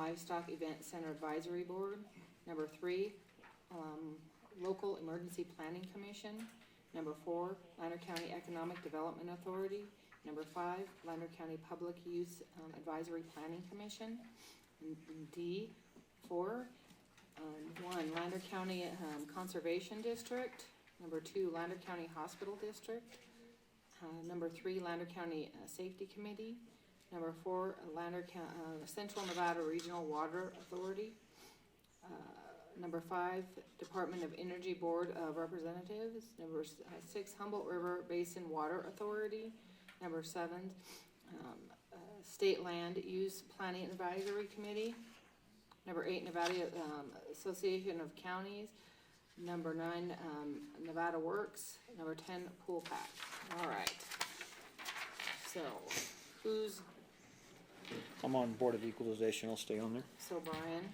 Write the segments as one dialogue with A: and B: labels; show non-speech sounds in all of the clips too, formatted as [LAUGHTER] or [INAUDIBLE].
A: Livestock Event Center Advisory Board. Number three, um, Local Emergency Planning Commission. Number four, Lander County Economic Development Authority. Number five, Lander County Public Use um, Advisory Planning Commission. And and D, four, um, one, Lander County, um, Conservation District. Number two, Lander County Hospital District. Uh, number three, Lander County, uh, Safety Committee. Number four, Lander County, uh, Central Nevada Regional Water Authority. Uh, Number five, Department of Energy Board of Representatives. Number s- uh, six, Humboldt River Basin Water Authority. Number seven, um, uh, State Land Use Planning Advisory Committee. Number eight, Nevada, um, Association of Counties. Number nine, um, Nevada Works. Number ten, Pool Pack. All right. So, who's,
B: I'm on Board of Equalization, I'll stay on there.
A: so Brian?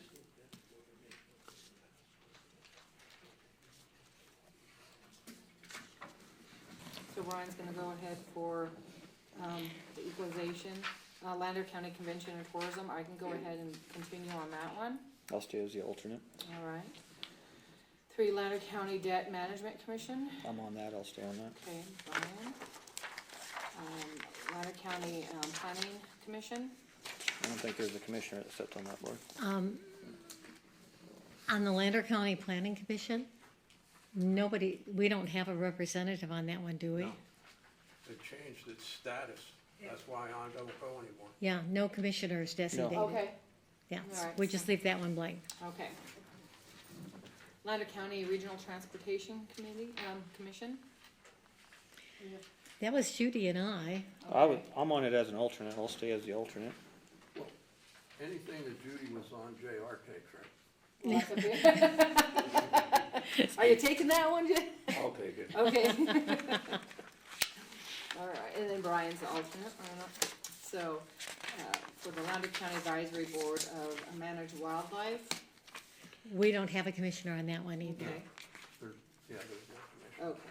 A: So Brian's gonna go ahead for, um, the equalization, uh, Lander County Convention and Tourism, I can go ahead and continue on that one,
B: I'll stay as the alternate.
A: all right? Three, Lander County Debt Management Commission,
B: I'm on that, I'll stay on that.
A: okay, Brian. Um, Lander County, um, Planning Commission,
B: I don't think there's a commissioner that sits on that board.
C: Um, On the Lander County Planning Commission, nobody, we don't have a representative on that one, do we?
D: No. They changed its status, that's why I don't go anymore.
C: Yeah, no commissioner is designated.
A: okay,
C: Yeah,
A: Alright,
C: we just leave that one blank.
A: Okay. Lander County Regional Transportation Committee, um, Commission?
C: That was Judy and I.
B: I would, I'm on it as an alternate, I'll stay as the alternate.
D: Anything that Judy was on, JR takes, right?
A: Lots of it. Are you taking that one, [LAUGHS] Jay?
D: I'll take it.
A: Okay. [LAUGHS] All right, and then Brian's the alternate, I don't know. So, uh, for the Lander County Advisory Board of Managed Wildlife,
C: We don't have a commissioner on that one either.
A: okay,
D: There- Yeah, there's no commission.
A: okay.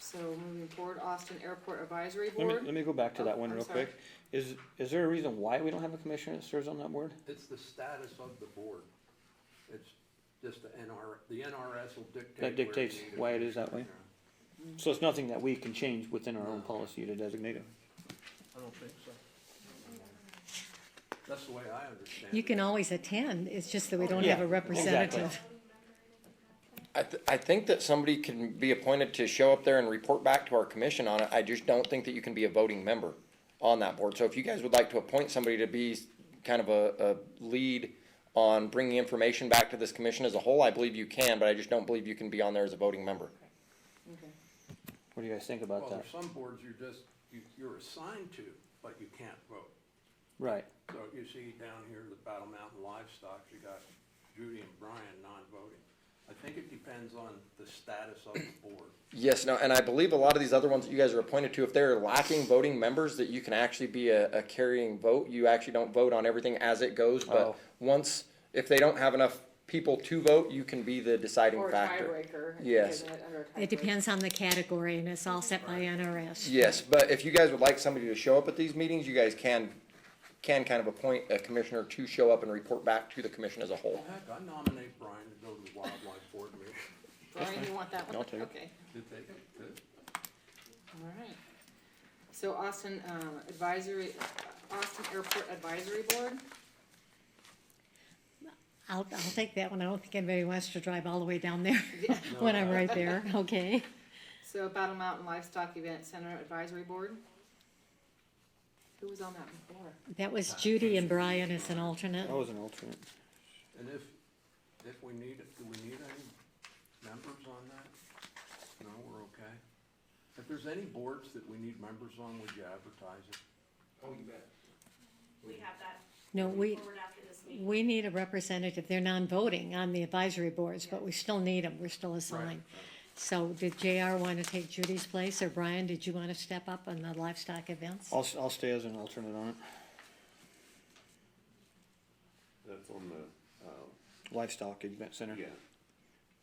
A: So moving forward, Austin Airport Advisory
B: Let me,
A: Board.
B: let me go back to that
A: Oh,
B: one
A: I'm
B: real
A: sorry.
B: quick. Is, is there a reason why we don't have a commissioner that serves on that board?
D: It's the status of the board. It's just the NR, the NRS will dictate.
B: That dictates
D: where you need a
B: why it is that
D: commissioner.
A: Mm.
B: So it's nothing that we can change within our own policy to designate him.
D: I don't think so. That's the way I understand it.
C: You can always attend, it's just that we don't have a
B: Yeah,
C: representative.
B: exactly.
E: I, th- I think that somebody can be appointed to show up there and report back to our commission on it. I just don't think that you can be a voting member on that board. So if you guys would like to appoint somebody to be s- kind of a, a lead on bringing information back to this commission as a whole, I believe you can, but I just don't believe you can be on there as a voting member.
A: Okay.
B: What do you guys think about
D: Well,
B: that?
D: there's some boards you're just, you, you're assigned to, but you can't vote.
B: Right,
D: So you see down here, the Battle Mountain Livestock, you got Judy and Brian non-voting. I think it depends on the status of the board.
E: Yes, no, and I believe a lot of these other ones that you guys are appointed to, if they're lacking voting members, that you can actually be a, a carrying vote. You actually don't vote on everything as it goes,
B: Oh.
E: but once, if they don't have enough people to vote, you can be the deciding
A: Or a
E: factor.
A: tiebreaker. is
E: Yes.
A: it under a
C: It
A: tiebreaker?
C: depends on the category and it's all set by NRS.
E: Yes, but if you guys would like somebody to show up at these meetings, you guys can, can kind of appoint a commissioner to show up and report back to the commission as a whole.
D: Well, heck, I nominate Brian to go to the Wildlife Board meeting.
A: Brian, you want that one?
B: I'll take it.
A: Okay.
D: Did they, did-
A: All right. So Austin um, Advisory, Austin Airport Advisory Board,
C: I'll, I'll take that one, I don't think anybody wants to drive all the way down there [LAUGHS] when I'm right there, okay?
A: so Battle Mountain Livestock Event Center Advisory Board. Who was on that before?
C: That was Judy and Brian as an alternate.
B: I was an alternate.
D: and if, if we need, it, do we need any members on that? No, we're okay. If there's any boards that we need members on, would you advertise it? Oh, you bet.
F: We have that
C: No, we,
F: forward after this meeting.
C: we need a representative, they're non-voting on the advisory boards, but we still need them, we're still assigned. So did JR want to take Judy's place, or Brian, did you want to step up on the livestock events?
B: I'll, s- I'll stay as an alternate on it.
G: That's on the, uh,
B: Livestock Event Center.
G: yeah.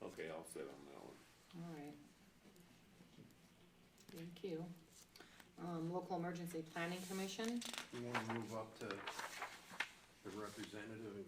G: Okay, I'll sit on that one.
A: All right. Thank you. Um, Local Emergency Planning Commission,
D: You wanna move up to the representative and